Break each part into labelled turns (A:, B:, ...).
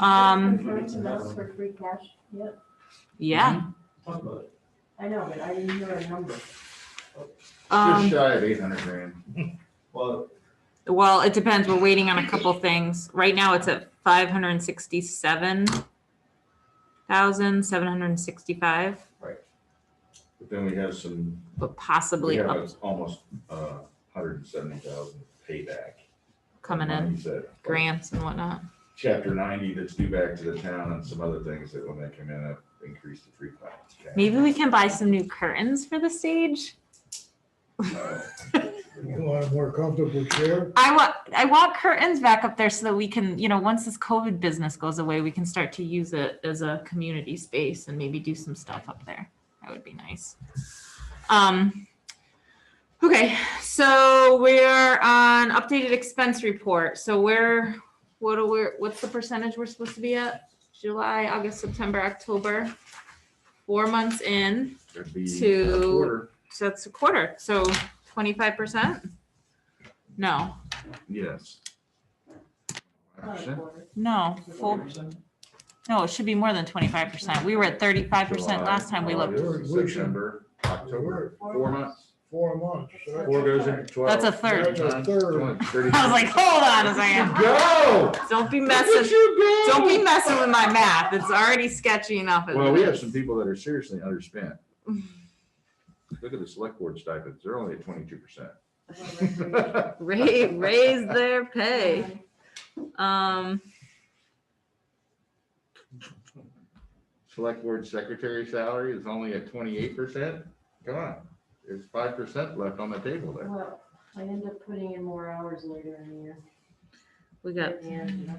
A: Um,
B: Referring to those for free cash, yep,
A: yeah.
C: Talk about it.
B: I know, but I didn't hear a number.
D: Just
A: Um,
D: shy of eight hundred grand.
C: Well,
A: well, it depends. We're waiting on a couple things. Right now it's at five hundred and sixty-seven thousand, seven hundred and sixty-five,
D: But then we have some,
A: but
D: we
A: possibly
D: have
A: up
D: a- almost uh hundred and seventy thousand payback.
A: coming in,
D: Monies that-
A: grants and whatnot.
D: Chapter ninety that's due back to the town and some other things that when they come in, have increased the free finance. cap.
A: Maybe we can buy some new curtains for the stage.
D: Uh,
E: You want a more comfortable chair?
A: I want, I want curtains back up there so that we can, you know, once this COVID business goes away, we can start to use it as a community space and maybe do some stuff up there. That would be nice. Um, okay, so we're on updated expense report. So where, what are we, what's the percentage we're supposed to be at? July, August, September, October, four months in,
D: it'd be a
A: To-
D: quarter.
A: so that's a quarter, so twenty-five percent? No,
D: Yes.
B: Not a
D: 100%.
B: quarter.
A: no, full No, it should be more than twenty-five percent. We were at thirty-five percent
D: July,
A: last time we looked.
D: August,
E: We should-
D: September, October, four months.
E: Four months. right?
D: Four goes into twelve.
A: That's a third.
E: That's a third.
A: I was like, hold on a second.
D: Go!
A: Don't be
D: Look at
A: messing,
D: you go!
A: don't be messing with my math. It's already sketchy enough. as
D: Well, we
A: it
D: have
A: is.
D: some people that are seriously underspent. Look at the select board stipends, they're only at twenty-two
B: Whatever.
D: percent.
A: Ra- raise their pay. Um,
D: Select board secretary salary is only at twenty-eight percent, come on, there's five percent left on the table there.
B: Well, I end up putting in more hours later in the year.
A: we got,
B: In the end, you know,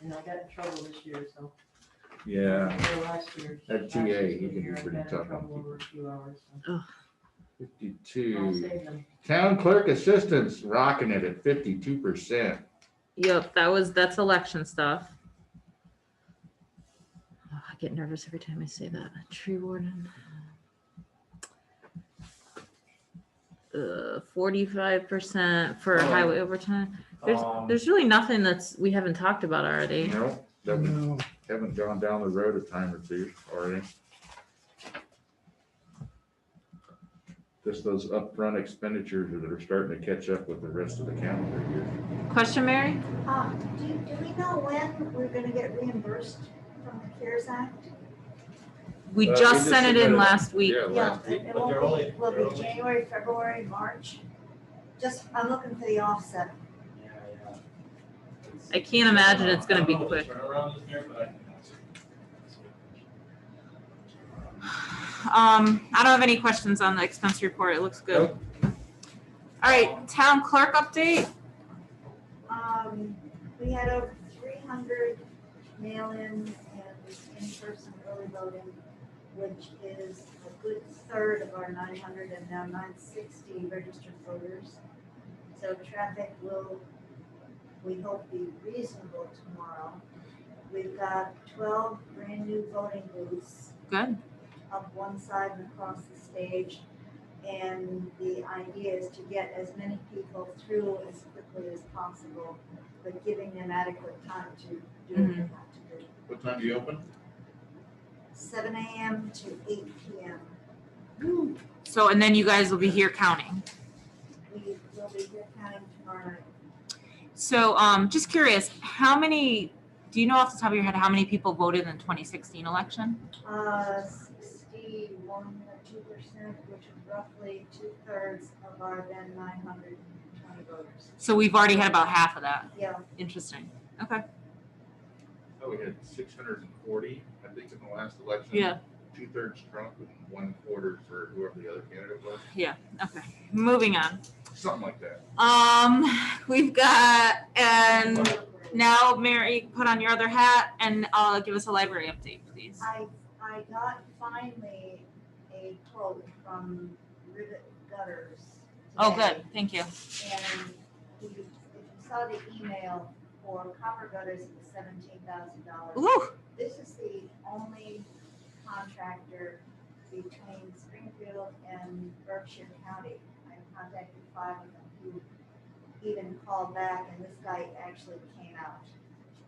B: And I got in trouble this year, so.
D: Yeah,
B: Or Last year.
D: That
B: Last
D: TA,
B: year's
D: he can be
B: year, I
D: pretty
B: got in
D: tough on
B: trouble
D: people.
B: over a few hours, so I'll
D: fifty-two,
B: save them.
D: town clerk assistants rocking it at fifty-two percent.
A: yep, that was, that's election stuff. Oh, I get nervous every time I say that. Tree warden. Uh, forty-five percent for
C: Oh.
A: highway overtime.
C: um,
A: There's really nothing that's, we haven't talked about already.
D: No, that we
E: No,
D: haven't gone down the road a time or two already. Just those upfront expenditures that are starting to catch up with the rest of the calendar year.
A: Question, Mary?
F: Uh, Do, do we know when we're gonna get reimbursed from the CARES Act?
A: We
D: Uh, we
A: just
D: just
A: sent it in
D: submitted it.
A: last week.
D: Yeah,
F: Yeah,
D: last
F: it-
D: week.
F: it
C: but
F: won't
C: they're
F: be-
C: only-
F: Will
C: they're
F: be
C: only-
F: January, February, March? Just, I'm looking for the offset.
C: yeah, yeah.
A: I can't imagine it's gonna be
C: I don't know what
A: quick.
C: the turnaround is there, but I-
A: Um, I don't have any questions on the expense report. It looks good.
D: Nope.
A: All right, town clerk update.
F: Um, we had over three hundred mail-ins and in-person early voting, which is a good third of our nine hundred and now nine sixty registered voters. So traffic will, we hope, be reasonable tomorrow. We've got twelve brand-new voting booths
A: Good.
F: up one side and across the stage. And the idea is to get as many people through as quickly as possible, but giving them adequate time to do what they
A: Mhm.
F: have to do.
D: What time do you open?
F: Seven AM to eight PM.
A: So, and then you guys will be here counting.
F: We will be here counting tomorrow night.
A: So, um, just curious, how many, do you know off the top of your head, how many people voted in the twenty sixteen election?
F: Uh, sixty-one or two percent, which is roughly two-thirds of our then nine hundred and twenty voters.
A: So we've already had about half of that.
F: Yeah,
A: Interesting.
D: Oh, we had six hundred and forty, I think, in the last election.
A: Yeah.
D: Two-thirds Trump and one quarter for whoever the other candidate was,
A: Okay, moving on.
D: something like that.
A: Um, we've got, and now Mary, put on your other hat and uh, give us a library update, please.
F: I, I got finally a quote from Rivet Gutters.
A: Oh,
F: today,
A: good, thank you.
F: And he, if you saw the email for copper gutters, it was seventeen thousand dollars.
A: Ooh,
F: This is the only contractor between Springfield and Berkshire County. I contacted five of them who even called back and this guy actually came out